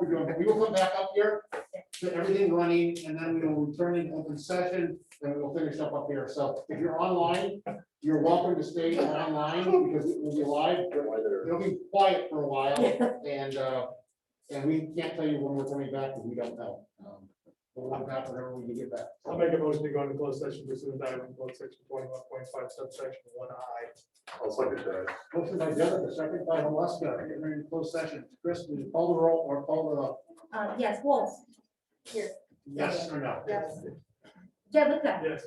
we're doing, we will come back up here, get everything running, and then we will return in open session, and we'll finish up up here. So if you're online, you're welcome to stay online, because it will be live, it'll be quiet for a while, and, uh, and we can't tell you when we're coming back, because we don't know. Um, We'll come back whenever we can get back. I'll make a motion to go into closed session pursuant to Iowa Code section twenty-one point five subsection one I. I'll second that. Motion by Jennifer, second by Alaska, getting ready to close session. Chris, will you call the roll or call the, Uh, yes, Wolf. Here. yes or no? Yes. Jellicoe. Yes.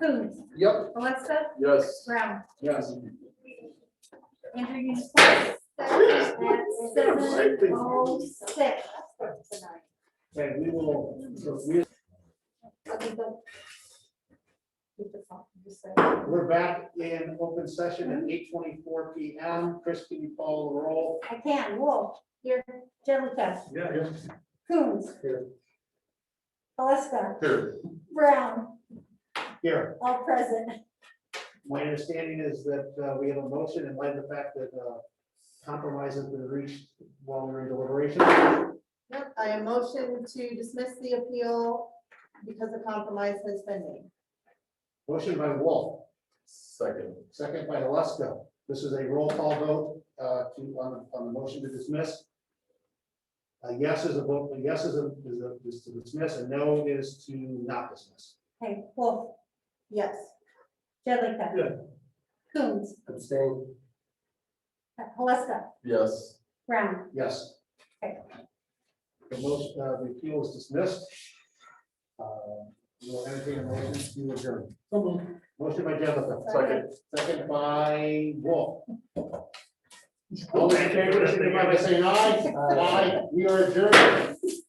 Coons. Yep. Alexa. Yes. Brown. Yes. Andrew Unicorn. Seven oh six. Okay, we will, so we, we're back in open session at eight twenty-four P M. Chris, can you call the roll? I can, Wolf, here, Jellicoe, Yeah, yeah. Coons. Here. Alexa, Here. Brown, Here, all present. my understanding is that uh, we have a motion in light of the fact that uh, compromise has been reached while we we're in deliberation. Yep, I am motion to dismiss the appeal because a compromise has been made. Motion by Wolf, Second. second by Alaska. This is a roll call vote uh, to, on, on the motion to dismiss. A yes is a vote, a yes is a, is a, is to dismiss, and no is to not dismiss. Okay, Wolf, Yes, Jellicoe. Yeah. Coons, Abstain. Alexa, Yes. Brown. Yes. Okay. The most, uh, the appeal is dismissed. Uh, We'll entertain a motion to adjourn. Motion by Jennifer. Second. Second by Wolf. All in favor, signify by saying aye. Aye, we are adjourned.